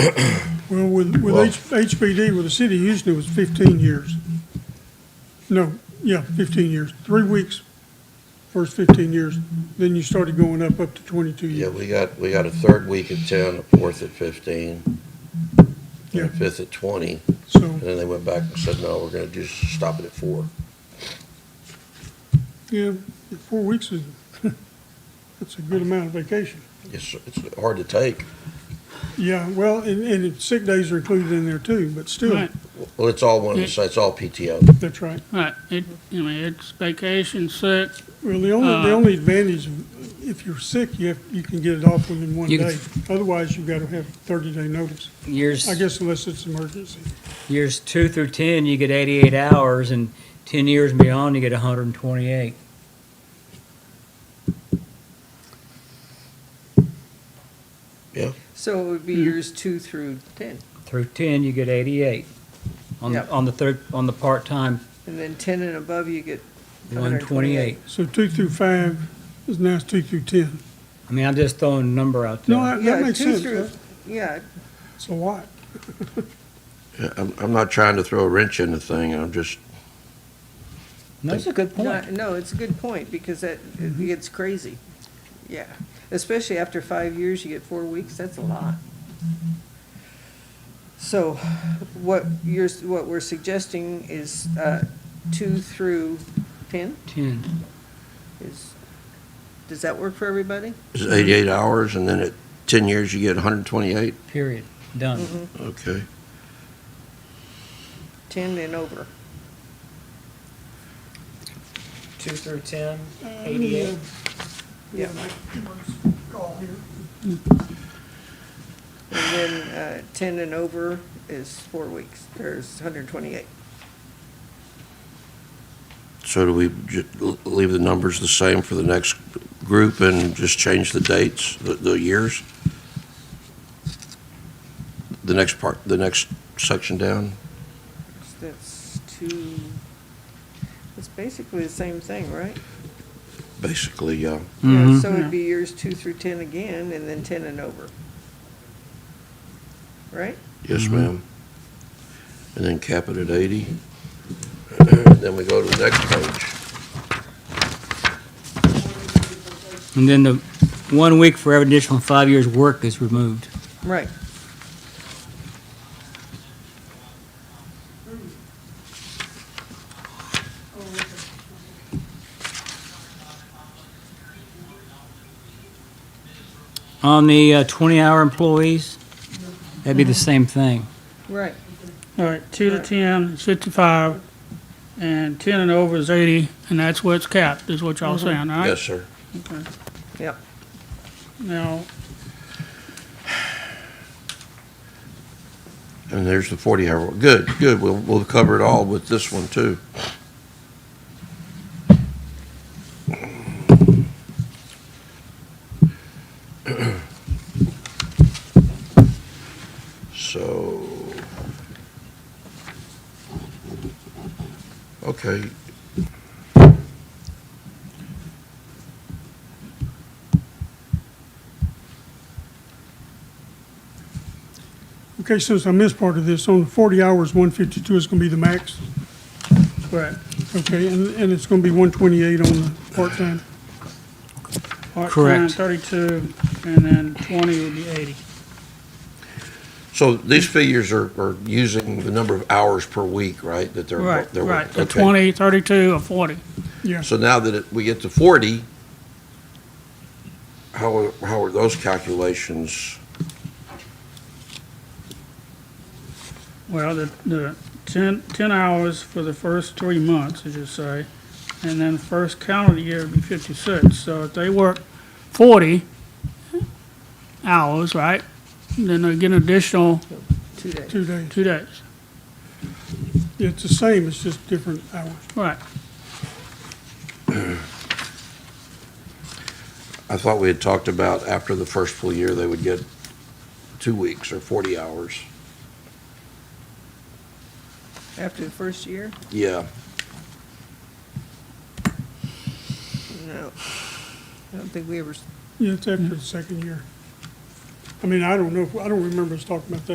Well, with, with Well- H- HPD, with the city of Houston, it was fifteen years. No, yeah, fifteen years, three weeks, first fifteen years, then you started going up, up to twenty-two Yeah, years. we got, we got a third week at ten, a fourth at fifteen, and Yeah, a fifth at twenty, so, and then they went back and said, no, we're gonna just stop it at four. yeah, four weeks is, that's a good amount of vacation. It's, it's hard to take. Yeah, well, and, and sick days are included in there too, but still, Right, Well, it's all one, Yeah. it's it's all PTO. that's right. right. It, I mean, it's vacation, sick, Well, the only, the Uh, only advantage, of- if you're sick, you have, you can get it off within one You can- day. Otherwise, you've got to have thirty-day notice, Years, I guess unless it's emergency. years two through 10, you get 88 hours, and 10 years and beyond, you get 128. So it would Hmm. be years two through 10, Through 10, you get 88 on, Yep. on the third, on the part-time, and then 10 and above, you get 128. So two through five is now it's two through ten. I mean, I'm just throwing a number out there. No, I- that Yeah, makes two sense. through- That- Yeah, It's a lot. Yeah, I'm, I'm not trying to throw a wrench in the thing, I'm just, No, That's a good point. no, no, it's a good point, because that, it Mm-hmm. gets crazy, yeah. Especially after five years, you get four weeks, that's a lot. So what you're, what we're suggesting is uh, two through 10 10. is, does that work for everybody? it's eighty-eight hours, and then at ten years, you get hundred and twenty-eight? Period. Done. Mm-hmm. Okay. 10 and over. two through ten, eighty-eight. Yeah. And then uh, 10 and over is four weeks, there's 128. So do we ju- leave the numbers the same for the next group and just change the dates, the, the years? The next part, the next section down? That's two, it's basically the same thing, right? Basically, yeah. Yeah. Mhm. So it'd be years two through 10 again, and then 10 and over. Right? Yes, Mm-hmm. ma'am. And then cap it at 80. Then we go to the next page. And then the one week for every additional five years' work is removed. Right. On the uh, 20-hour employees, that'd be the same thing. Right. all right, two to Right. 10 is 55, and 10 and over is 80, and that's where it's capped, is what y'all saying, all right? Yes, sir. Yep. Now, And there's the 40-hour. Good, good. We'll, we'll cover it all with this one, too. So, okay. Okay, since I missed part of this, on the forty hours, one fifty-two is gonna be the max. right, Okay, and, and it's gonna be one twenty-eight on the part-time. part-time, Correct. 32, and then 20 would be 80. So these figures are, are using the number of hours per week, right? That they're. Right, they're- right, the okay. 20, 32, or 40. Yeah, So now that it- we get to 40, how, are- how are those calculations? Well, the, the 10, 10 hours for the first three months, as you say, and then first calendar year would be 56. So if they work 40 hours, right, then they get an additional Two days. two days. two days. It's the same, it's just different hours. Right, I thought we had talked about after the first full year, they would get two weeks or 40 hours. After the first year? Yeah, No. I don't think we ever s- Yeah, it's after the second year. I mean, I don't know, if- I don't remember us talking about that